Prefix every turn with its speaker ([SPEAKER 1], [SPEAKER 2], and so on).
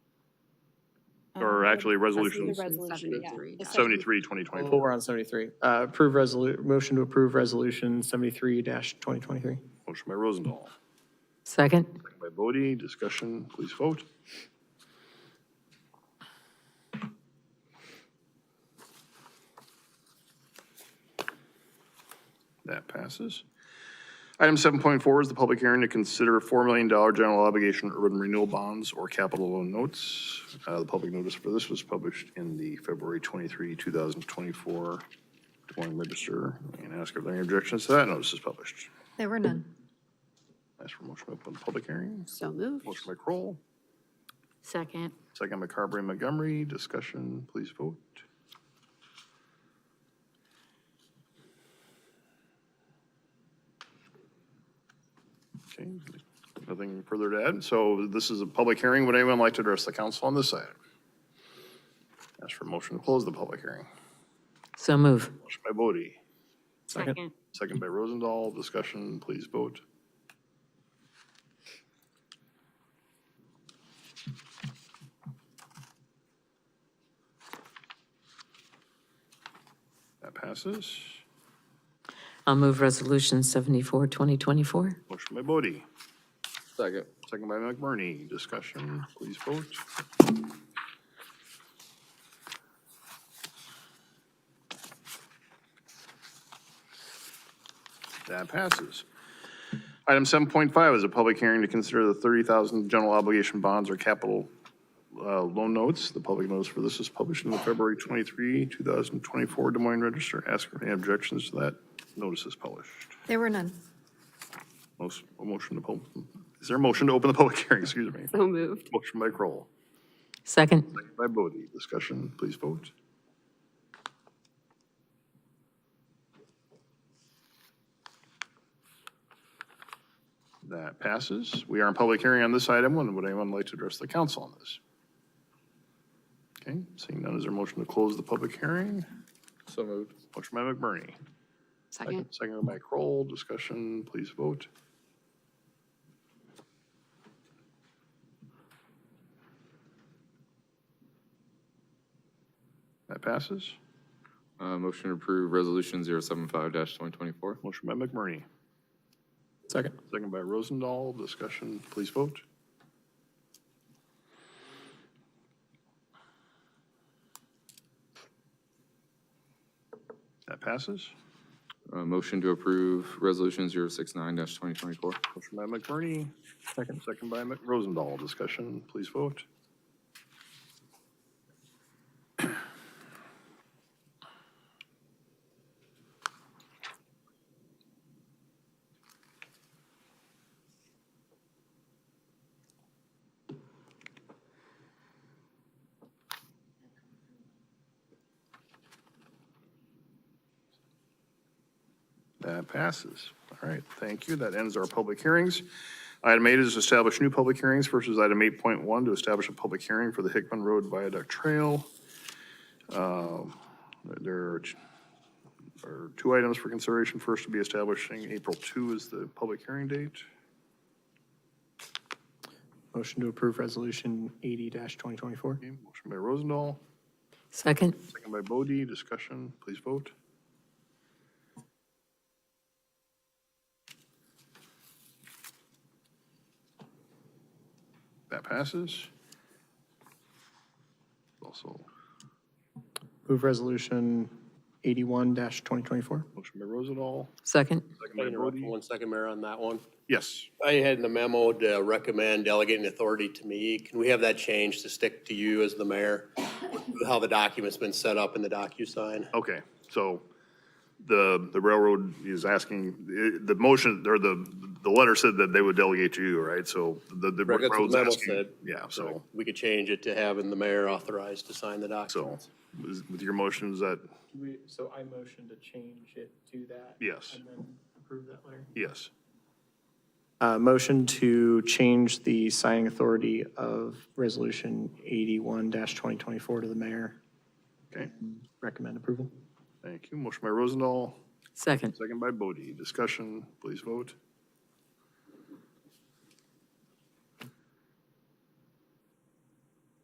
[SPEAKER 1] Um,
[SPEAKER 2] actually, resolution
[SPEAKER 1] the resolution, yeah. The second-
[SPEAKER 2] seventy-three, twenty
[SPEAKER 3] Oh,
[SPEAKER 2] twenty-four.
[SPEAKER 3] we're on 73. Uh, Approve resolu, motion to approve resolution 73-2023.
[SPEAKER 2] Motion by Rosendahl,
[SPEAKER 4] Second?
[SPEAKER 2] second by Bodie. Discussion, please vote. That passes. Item seven point four is the public hearing to consider four million dollar general obligation urban renewal bonds or capital loan notes. Uh, the public notice for this was published in the February twenty-three, two thousand twenty-four Des Moines Register. And ask if there are any objections to that notice is published.
[SPEAKER 5] There were none.
[SPEAKER 2] Ask for motion to open the public hearing.
[SPEAKER 1] So moved.
[SPEAKER 2] Motion by Kroll,
[SPEAKER 4] Second.
[SPEAKER 2] second by Carberry and Montgomery. Discussion, please vote. Okay, nothing further to add. So this is a public hearing. Would anyone like to address the council on this item? Ask for motion to close the public hearing.
[SPEAKER 4] So move.
[SPEAKER 2] Motion by Bodie,
[SPEAKER 4] Second.
[SPEAKER 2] second by Rosendahl. Discussion, please vote. That passes.
[SPEAKER 4] I'll move Resolution 74, 2024.
[SPEAKER 2] Motion by Bodie,
[SPEAKER 6] Second.
[SPEAKER 2] second by McBurney. Discussion, please vote. That passes. Item 7.5 is a public hearing to consider the 30,000 general obligation bonds or capital uh, loan notes. The public notice for this is published in the February 23, 2024 Des Moines Register. Ask for any objections to that notice is published.
[SPEAKER 5] There were none.
[SPEAKER 2] Most, a motion to, pub- is there a motion to open the public hearing, excuse me?
[SPEAKER 1] So moved.
[SPEAKER 2] Motion by Kroll,
[SPEAKER 4] Second.
[SPEAKER 2] second by Bodie. Discussion, please vote. That passes. We are in public hearing on this item. Would would anyone like to address the council on this? Okay, seeing none, is there a motion to close the public hearing?
[SPEAKER 6] So moved.
[SPEAKER 2] Motion by McBurney,
[SPEAKER 1] Second.
[SPEAKER 2] second by Kroll. Discussion, please vote. That passes.
[SPEAKER 6] Uh, motion to approve resolution zero seven five dash twenty twenty-four.
[SPEAKER 2] Motion by McMurray,
[SPEAKER 3] Second.
[SPEAKER 2] second by Rosendahl. Discussion, please vote. That passes.
[SPEAKER 6] Uh, motion to approve resolution zero six nine dash twenty twenty-four.
[SPEAKER 2] Motion by McMurray, second, second by Mc- Rosendahl. Discussion, please vote. That passes. All right, thank you. That ends our public hearings. Item eight is establish new public hearings versus item eight point one to establish a public hearing for the Hickman Road Viaduct Trail. Um, There are t- are two items for consideration. First to be establishing April two is the public hearing date.
[SPEAKER 3] Motion to approve resolution 80-2024.
[SPEAKER 2] Okay, Motion by Rosendahl,
[SPEAKER 4] Second.
[SPEAKER 2] second by Bodie. Discussion, please vote. That passes. Also,
[SPEAKER 3] Move resolution 81-2024.
[SPEAKER 2] motion by Rosendahl, second
[SPEAKER 4] Second.
[SPEAKER 7] Can I
[SPEAKER 2] by
[SPEAKER 7] interrupt for
[SPEAKER 2] Bodie.
[SPEAKER 7] one second, Mayor, on that one?
[SPEAKER 2] Yes,
[SPEAKER 7] I had in the memo to recommend delegating authority to me. Can we have that changed to stick to you as the mayor? How the document's been set up in the DocuSign?
[SPEAKER 2] okay, so the, the railroad is asking, eh, the motion, or the, the letter said that they would delegate to you, right? So the, the
[SPEAKER 7] Correct, that's what the
[SPEAKER 2] railroad's
[SPEAKER 7] memo
[SPEAKER 2] asking.
[SPEAKER 7] said.
[SPEAKER 2] Yeah, so,
[SPEAKER 7] We could change it to having the mayor authorized to sign the
[SPEAKER 2] so
[SPEAKER 7] documents.
[SPEAKER 2] is- with your motion, is that,
[SPEAKER 3] So I motion to change it to that.
[SPEAKER 2] Yes. and
[SPEAKER 3] then approve that later.
[SPEAKER 2] yes?
[SPEAKER 3] Uh, motion to change the signing authority of resolution 81-2024 to the mayor.
[SPEAKER 2] Okay,
[SPEAKER 3] Recommend approval.
[SPEAKER 2] thank you. Motion by Rosendahl,
[SPEAKER 4] Second.
[SPEAKER 2] second by Bodie. Discussion, please vote.